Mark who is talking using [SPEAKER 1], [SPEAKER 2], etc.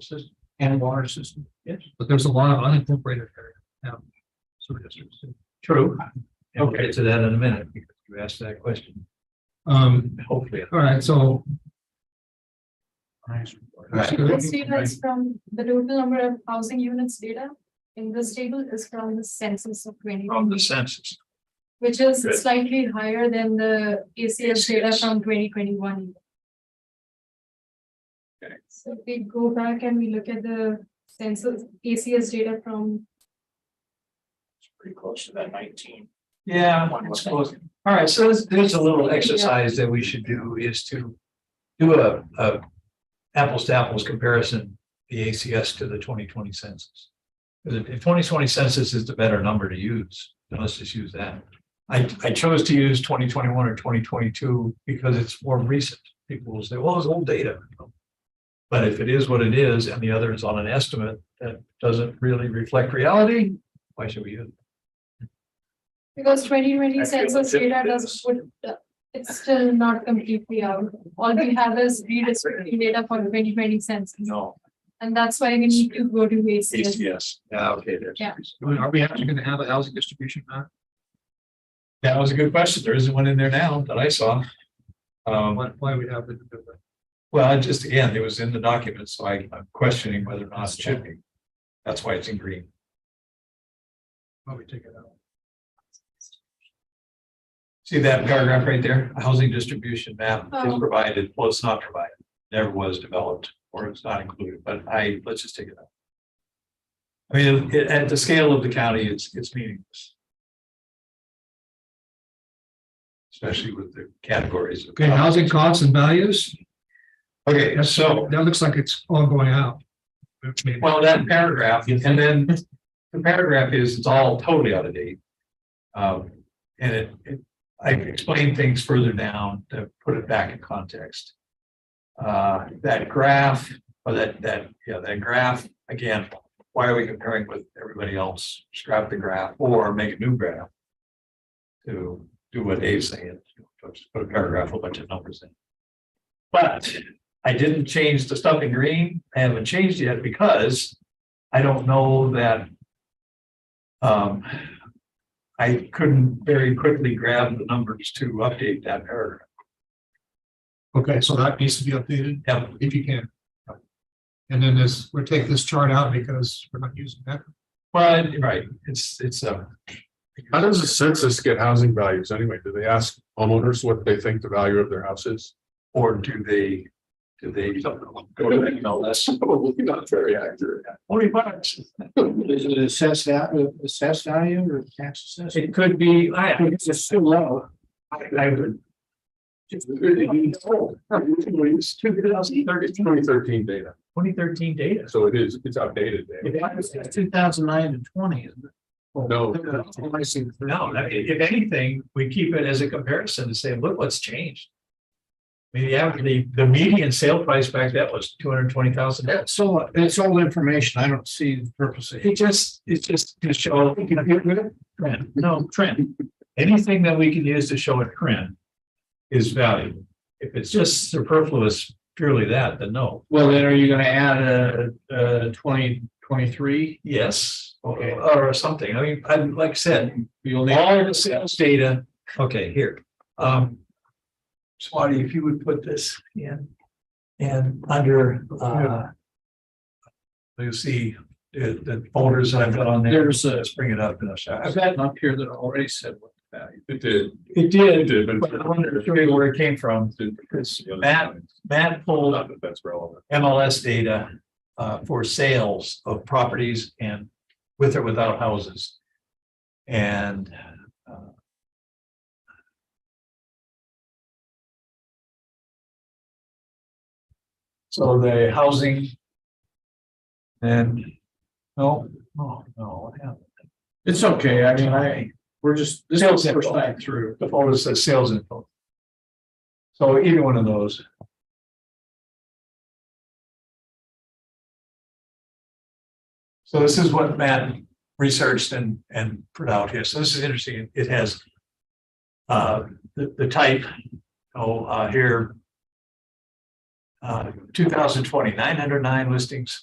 [SPEAKER 1] system and water system. Yes.
[SPEAKER 2] But there's a lot of unincorporated area. um, sewer districts. too.
[SPEAKER 1] True.
[SPEAKER 2] And we'll get to that in a minute because you asked that question. Um,
[SPEAKER 1] Hopefully.
[SPEAKER 2] all right, so
[SPEAKER 1] Nice.
[SPEAKER 2] Right.
[SPEAKER 3] This data is from the total number of housing units data in this table is from the census of twenty,
[SPEAKER 1] From the census.
[SPEAKER 3] which is
[SPEAKER 1] Good.
[SPEAKER 3] slightly higher than the ACS data from twenty twenty-one.
[SPEAKER 1] Okay.
[SPEAKER 3] So if we go back and we look at the census ACS data from,
[SPEAKER 1] It's Pretty close to that nineteen.
[SPEAKER 2] Yeah, it's close. All right, so there's, there's a little
[SPEAKER 3] Yeah.
[SPEAKER 2] exercise that we should do is to do a, a apples to apples comparison, the ACS to the twenty twenty census. Because if twenty twenty census is the better number to use, then let's just use that. I, I chose to use twenty twenty one or twenty twenty two because it's more recent. People will say, well, it's old data. But if it is what it is and the other is on an estimate that doesn't really reflect reality, why should we use it?
[SPEAKER 3] because twenty twenty
[SPEAKER 1] Actually,
[SPEAKER 3] census
[SPEAKER 1] legit
[SPEAKER 3] data
[SPEAKER 1] business.
[SPEAKER 3] does, would, it's still not completely out. All we have is redistricting data for twenty twenty census,
[SPEAKER 1] No,
[SPEAKER 3] and that's why we need to go to ACS.
[SPEAKER 1] ACS. Yeah, okay, there's.
[SPEAKER 3] Yeah.
[SPEAKER 2] Are we actually gonna have a housing distribution map?
[SPEAKER 1] That was a good question. There isn't one in there now that I saw. Um,
[SPEAKER 2] Why, why we have it?
[SPEAKER 1] well, I just, again, it was in the document, so I, I'm questioning whether or not it should be. That's why it's in green.
[SPEAKER 2] Why we take it out?
[SPEAKER 1] See that paragraph right there? A Housing distribution map is
[SPEAKER 3] Oh.
[SPEAKER 1] provided, well, it's not provided, never was developed, or it's not included, but I, let's just take it out. I mean, it- at the scale of the county, it's, it's meaningless. Especially with the categories. of-
[SPEAKER 2] Okay, housing costs and values,
[SPEAKER 1] Okay, so.
[SPEAKER 2] that looks like it's all going out. Maybe.
[SPEAKER 1] Well, that paragraph, and then the paragraph is, it's all totally out of date. Um, and it, it, I explained things further down to put it back in context. Uh, that graph, or that, that, yeah, that graph, again, why are we comparing with everybody else? Scrap the graph or make a new graph. To do what Dave's saying, just put a paragraph, with a bunch of numbers in. But I didn't change the stuff in green. I haven't changed yet because I don't know that. Um. I couldn't very quickly grab the numbers to update that paragraph.
[SPEAKER 2] Okay, so that needs to be updated
[SPEAKER 1] Yeah,
[SPEAKER 2] if you can. And then this, we'll take this chart out because we're not using that.
[SPEAKER 1] but right, it's, it's uh, a.
[SPEAKER 4] How does the census get housing values anyway? Do they ask homeowners what they think the value of their house is?
[SPEAKER 1] Or do they, do they? Go to that email list?
[SPEAKER 4] Probably not very accurate.
[SPEAKER 1] Only bucks.
[SPEAKER 5] Is it assessed, va- assessed value or tax assessed?
[SPEAKER 1] It could be, I, I-
[SPEAKER 5] It's just too low.
[SPEAKER 1] I would,
[SPEAKER 4] It's two thousand thirteen. Twenty thirteen data,
[SPEAKER 1] twenty thirteen data.
[SPEAKER 4] so it is, it's outdated. data.
[SPEAKER 5] It's two thousand nine and twenty, isn't it?
[SPEAKER 1] Oh,
[SPEAKER 4] No.
[SPEAKER 5] I see.
[SPEAKER 1] No, I mean, if anything, we keep it as a comparison to say, look what's changed. I mean, the average, the, the median sale price back then was two hundred and twenty thousand dollars.
[SPEAKER 5] That's all, that's all information. I don't see the purpose of it.
[SPEAKER 1] It just, it's just to show. Trend, no, trend. Anything that we can use to show a trend is valuable. If it's just superfluous, purely that, then no.
[SPEAKER 5] Well, then are you gonna add a, a twenty, twenty-three?
[SPEAKER 1] Yes, or,
[SPEAKER 5] Okay.
[SPEAKER 1] or something. I mean, I, like I said,
[SPEAKER 5] You'll need.
[SPEAKER 1] All the sales data, okay, here, um. Swati, if you would put this in, and under, uh. You see the, uh, the folders that I've got on there,
[SPEAKER 5] There's a,
[SPEAKER 1] let's bring it up in a second.
[SPEAKER 5] I've got one up here that already said what the value.
[SPEAKER 4] It did.
[SPEAKER 1] It
[SPEAKER 4] It
[SPEAKER 1] did,
[SPEAKER 4] did, but.
[SPEAKER 1] but I wanted to show you where it came from,
[SPEAKER 4] It's-
[SPEAKER 1] Matt, Matt pulled
[SPEAKER 4] Not that that's relevant.
[SPEAKER 1] MLS data uh, for sales of properties and with or without houses. And uh, so the housing and, no, Oh, no, no, what happened?
[SPEAKER 5] It's okay. I mean, I, we're just, this is the first time through.
[SPEAKER 1] The folder says sales info. So either one of those. So this is what Matt researched and, and put out here. So this is interesting. It has uh, the, the type, oh, uh, here, uh, 2020, 909 listings,